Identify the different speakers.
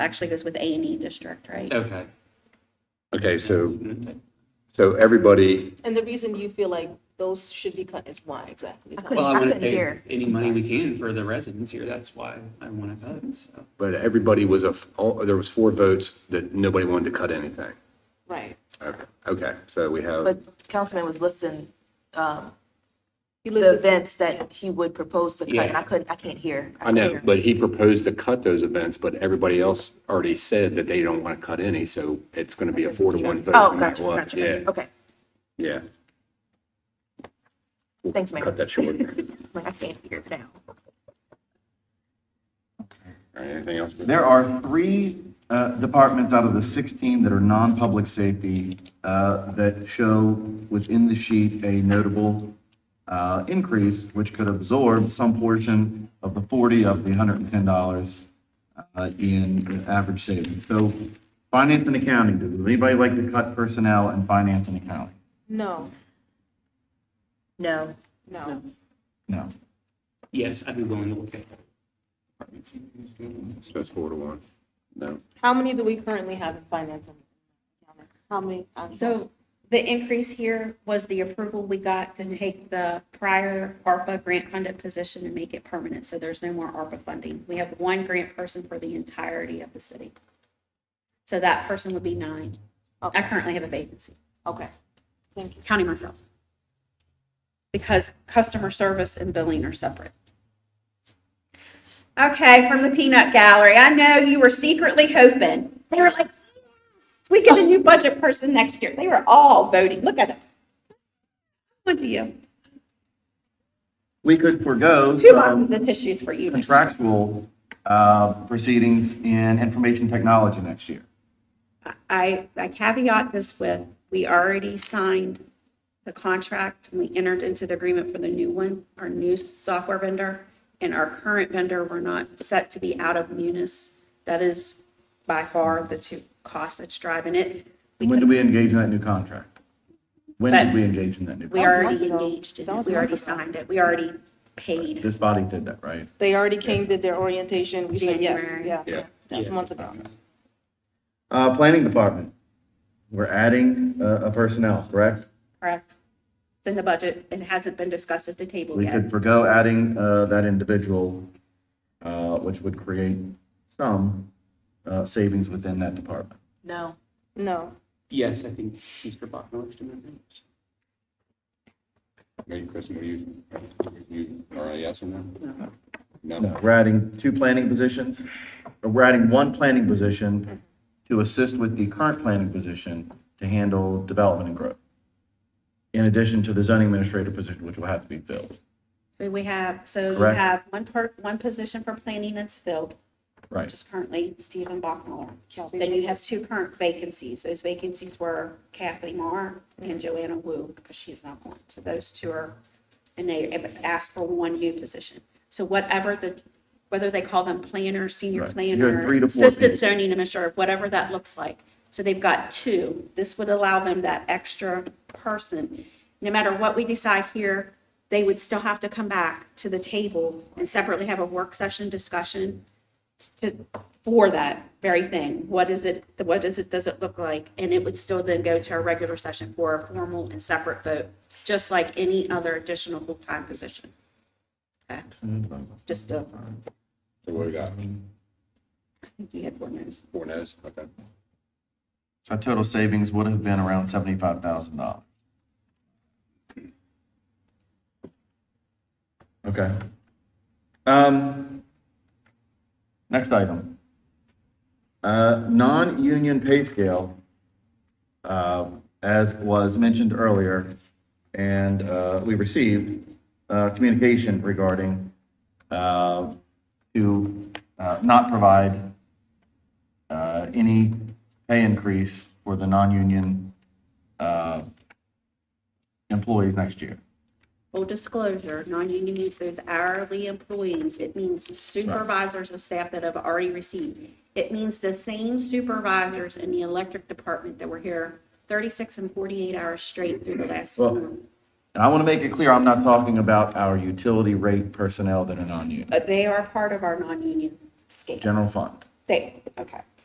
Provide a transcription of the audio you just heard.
Speaker 1: actually goes with A and E district, right?
Speaker 2: Okay.
Speaker 3: Okay, so, so everybody,
Speaker 4: And the reason you feel like those should be cut is why exactly?
Speaker 5: I
Speaker 4: Is that-
Speaker 5: couldn't-
Speaker 2: Well, I want to
Speaker 5: couldn't
Speaker 2: save
Speaker 5: hear.
Speaker 2: any money we can for the residents here. That's why I want to cut. So
Speaker 3: but everybody was a, f- all- there was four votes that nobody wanted to cut anything.
Speaker 4: Right.
Speaker 3: Okay, Okay, so we have,
Speaker 5: But Councilman was listing um,
Speaker 4: He
Speaker 5: the
Speaker 4: listed-
Speaker 5: events that he would propose to cut, and I
Speaker 2: Yeah.
Speaker 5: couldn't, I can't hear.
Speaker 3: I
Speaker 5: couldn't
Speaker 3: know,
Speaker 5: hear.
Speaker 3: but he proposed to cut those events, but everybody else already said that they don't want to cut any, so it's going to be a four to one vote.
Speaker 5: Oh,
Speaker 3: no
Speaker 5: gotcha,
Speaker 3: matter what.
Speaker 5: gotcha,
Speaker 3: Yeah,
Speaker 5: gotcha. Okay,
Speaker 3: yeah. We'll
Speaker 5: Thanks, Mayor.
Speaker 3: Cut that short.
Speaker 5: like I can't hear now.
Speaker 3: All right, anything else?
Speaker 6: There are three uh, departments out of the 16 that are non-public safety uh, that show within the sheet a notable uh, increase, which could absorb some portion of the 40 of the $110 uh, in in average savings. So finance and accounting, does anybody like to cut personnel and finance and accounting?
Speaker 4: No,
Speaker 5: No,
Speaker 4: no.
Speaker 6: No.
Speaker 2: yes, I'd be willing to look at
Speaker 3: So it's four to one. No.
Speaker 4: How many do we currently have in finance? and accounting? How many? I'm-
Speaker 1: So the increase here was the approval we got to take the prior ARPA grant funded position and make it permanent, so there's no more ARPA funding. We have one grant person for the entirety of the city. So that person would be nine. I
Speaker 4: Okay.
Speaker 1: currently have a vacancy,
Speaker 4: Okay, thank you.
Speaker 1: counting myself. Because customer service and billing are separate. Okay, from the peanut gallery, I know you were secretly hoping. They were like, yes, we get a new budget person next year. They were all voting. Look at them. What do you?
Speaker 6: We could forego
Speaker 1: Two
Speaker 6: some-
Speaker 1: boxes of tissues for you.
Speaker 6: contractual uh, proceedings in information technology next year.
Speaker 1: I, I caveat this with, we already signed the contract, and we entered into the agreement for the new one, our new software vendor, and our current vendor, we're not set to be out of Munis. That is by far the two costs that's driving it. We
Speaker 6: When
Speaker 1: could-
Speaker 6: did we engage in that new contract? When
Speaker 1: But-
Speaker 6: did we engage in that new?
Speaker 1: we
Speaker 4: That
Speaker 6: contract?
Speaker 4: was
Speaker 1: already
Speaker 4: months ago.
Speaker 1: engaged in
Speaker 4: That
Speaker 1: it,
Speaker 4: was
Speaker 1: we already
Speaker 4: months ago.
Speaker 1: signed it, we already paid.
Speaker 6: This body did that, right?
Speaker 4: They already came, did their orientation. We said yes,
Speaker 1: January.
Speaker 4: yeah.
Speaker 3: Yeah.
Speaker 4: That was months ago.
Speaker 6: Uh, Planning Department, we're adding uh, a personnel, correct?
Speaker 1: Correct. It's in the budget, it hasn't been discussed at the table
Speaker 6: We
Speaker 1: yet.
Speaker 6: could forego adding uh, that individual, uh, which would create some uh, savings within that department.
Speaker 5: no.
Speaker 4: No,
Speaker 2: Yes, I think Mr. Bachman was doing that.
Speaker 3: Maybe Kristen, were you, you, all right, yes or no?
Speaker 6: No, we're adding two planning positions, or we're adding one planning position to assist with the current planning position to handle development and growth. In addition to the zoning administrator position, which will have to be filled,
Speaker 1: So we have, so you
Speaker 6: Correct.
Speaker 1: have one part, one position for planning that's filled,
Speaker 6: right?
Speaker 1: which is currently Stephen Bachmiller. Then you have two current vacancies. Those vacancies were Kathleen Marr and Joanna Wu, because she's not on. So those two are, and they have asked for one new position. So whatever the, whether they call them planner, senior
Speaker 6: Right. You have
Speaker 1: planner,
Speaker 6: three to four
Speaker 1: assistant
Speaker 6: people.
Speaker 1: zoning administrator, whatever that looks like. So they've got two. This would allow them that extra person. No matter what we decide here, they would still have to come back to the table and separately have a work session discussion to, for that very thing. What is it, what is it, does it look like? And it would still then go to a regular session for a formal and separate vote, just like any other additional full-time position. Okay, just a,
Speaker 3: So what we got?
Speaker 1: I think you had four no's.
Speaker 3: Four no's? Okay.
Speaker 6: So total savings would have been around seventy-five thousand dollars. Okay. Um, next item. Uh, non-union pay scale, uh, as was mentioned earlier, and, uh, we received, uh, communication regarding, uh, to, uh, not provide, uh, any pay increase for the non-union uh, employees next year.
Speaker 1: Full disclosure, non-union means those hourly employees. It means supervisors of staff that have already received. It means the same supervisors in the electric department that were here 36 and 48 hours straight through the last
Speaker 6: Well-
Speaker 1: storm.
Speaker 6: And I want to make it clear, I'm not talking about our utility rate personnel that are non-union,
Speaker 1: But they are part of our non-union scale.
Speaker 6: general fund.
Speaker 1: They, okay.